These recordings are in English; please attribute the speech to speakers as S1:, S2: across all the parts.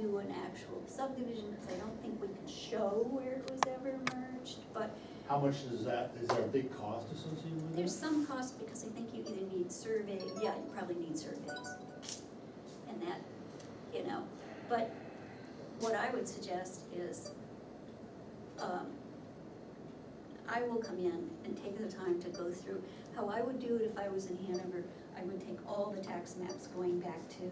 S1: do an actual subdivision, because I don't think we can show where it was ever merged, but
S2: How much is that, is there a big cost associated with
S1: there's
S2: it?
S1: some cost, because I think you either need survey, yeah, you probably need surveys. And that, you know, but what I would suggest is, um, I will come in and take the time to go through, how I would do it if I was in Hanover, I would take all the tax maps going back to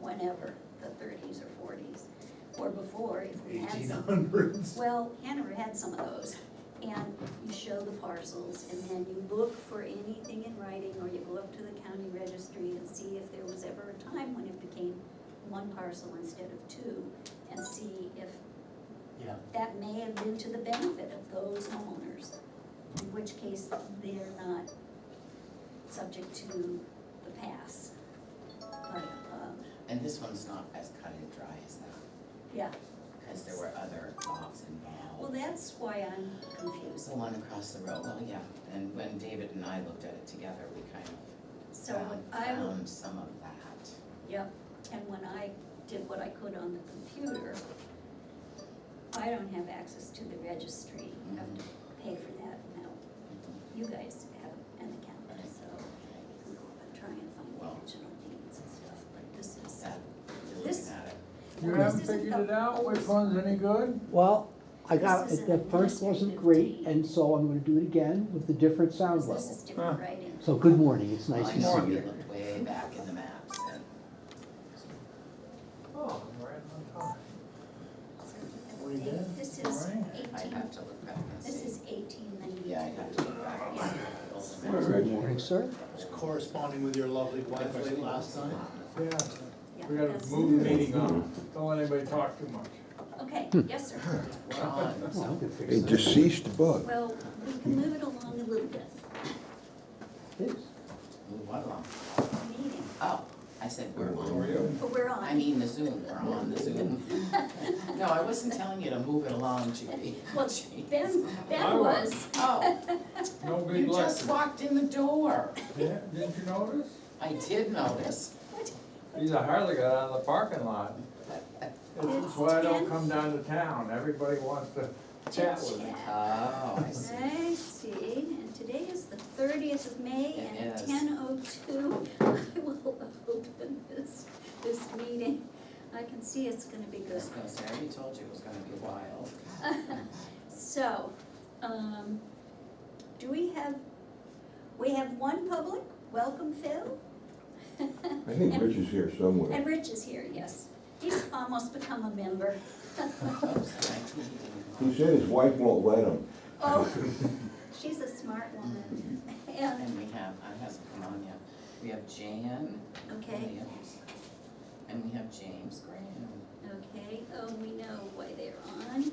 S1: whenever, the thirties or forties, or before, if we had
S2: Eighteen
S1: some.
S2: hundreds?
S1: Well, Hanover had some of those, and you show the parcels, and then you look for anything in writing, or you go up to the county registry and see if there was ever a time when it became one parcel instead of two, and see if
S2: Yeah,
S1: that may have been to the benefit of those homeowners, in which case they're not subject to the pass. But, um,
S3: And this one's not as cut and dry as that,
S1: yeah,
S3: because there were other lots involved.
S1: well, that's why I'm
S3: It's
S1: confused,
S3: the one across the road, well, yeah, and when David and I looked at it together, we kind of
S1: so um,
S3: found,
S1: I would
S3: found some of that.
S1: Yep, and when I did what I could on the computer, I don't have access to the registry, you have to pay for that now. You guys have an account, so we go up and try and find
S3: Well.
S1: the original deeds and stuff, but this is.
S3: That, you're
S1: This-
S3: looking at it.
S4: You
S1: this
S4: haven't
S1: isn't
S4: figured
S1: the
S4: it out, which
S1: oldest-
S4: one's any good?
S5: Well, I got,
S1: This is
S5: the
S1: an
S5: first wasn't
S1: administrative
S5: great,
S1: deed.
S5: and so I'm gonna do it again with the different sound
S1: This
S5: level.
S1: is different
S4: Huh.
S1: writing.
S5: So good morning, it's nice
S3: I
S5: to
S3: know,
S5: see
S3: we
S5: you.
S3: looked way back in the maps and,
S4: Oh, I'm right on time.
S1: So you have
S2: What do you
S1: to
S2: do?
S1: pay- This is
S2: Alright.
S3: I
S1: eighteen,
S3: have to look back and
S1: this
S3: see.
S1: is eighteen ninety-two.
S3: Yeah, I have to look back and see the old maps.
S5: Good morning, sir.
S2: it's corresponding with your lovely wife late last time.
S4: Yeah,
S1: Yeah,
S4: we gotta
S1: that's-
S4: move the meeting on, don't let anybody talk too much.
S1: Okay, yes, sir.
S3: Ron,
S5: Well, we can fix
S6: A
S5: that.
S6: deceased bug.
S1: Well, we can move it along a little bit,
S5: Thanks.
S3: move one along.
S1: meeting,
S3: Oh, I said we're on.
S1: but we're on.
S3: I mean the Zoom, we're on the Zoom. No, I wasn't telling you to move it along, Judy.
S1: Well, Ben, Ben
S4: I was.
S1: was,
S3: Oh,
S4: No
S3: you
S4: big
S3: just
S4: lecture.
S3: walked in the door.
S4: Yeah, Didn't you notice?
S3: I did notice.
S4: He's a hardly got out of the parking lot. This
S1: It's
S4: is why
S1: ten.
S4: I don't come down to town, everybody wants to chat with me.
S3: Oh, I see.
S1: I see, and today is the thirtieth of May,
S3: It
S1: and at
S3: is.
S1: ten oh two, I will open this, this meeting. I can see it's gonna be
S3: I
S1: good.
S3: was gonna say, I already told you it was gonna be wild.
S1: So, um, do we have, we have one public, welcome Phil?
S6: I think
S1: And-
S6: Rich is here somewhere.
S1: And Rich is here, yes, he's almost become a member.
S3: Oops, I didn't
S6: He
S3: even-
S6: said his wife won't let him.
S1: Oh, she's a smart woman, and,
S3: And we have, I hasn't come on yet. We have Jan
S1: okay.
S3: Williams. And we have James Graham.
S1: Okay, oh, we know why they're on.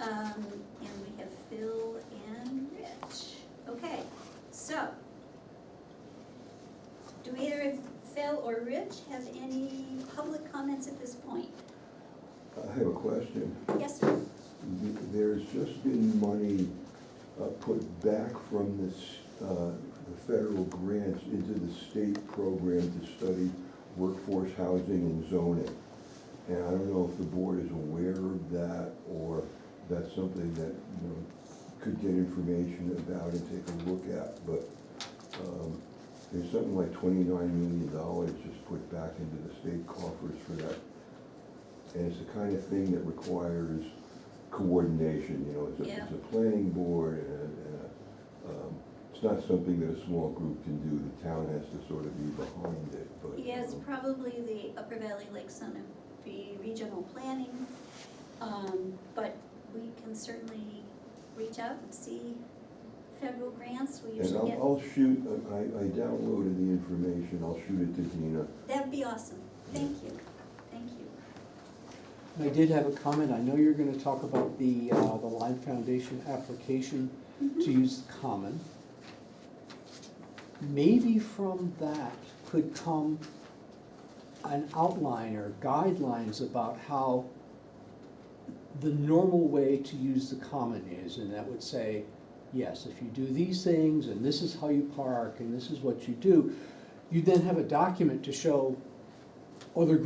S1: Um, and we have Phil and Rich. Okay, so. Do either of Phil or Rich have any public comments at this point?
S6: I have a question.
S1: Yes, sir?
S6: Th- There's just been money uh, put back from this, uh, the federal grants into the state program to study workforce housing and zoning. And I don't know if the board is aware of that or that's something that, you know, could get information about and take a look at. But um, there's something like twenty-nine million dollars just put back into the state coffers for that. And it's the kind of thing that requires coordination, you know, it's a,
S1: Yeah.
S6: it's a planning board and a, and a, um, it's not something that a small group can do, the town has to sort of be behind it, but.
S1: Yes,
S6: um,
S1: probably the Upper Valley Lake Sunapee Regional Planning. Um, but we can certainly reach out and see federal grants. We
S6: And
S1: usually
S6: I'll,
S1: get,
S6: I'll shoot, I, I downloaded the information, I'll shoot it to Dina.
S1: that'd be awesome. Thank you, thank you.
S5: I did have a comment, I know you're gonna talk about the, uh, the Lime Foundation application to use the common. Maybe from that could come an outline or guidelines about how the normal way to use the common is, and that would say, yes, if you do these things, and this is how you park, and this is what you do, you then have a document to show other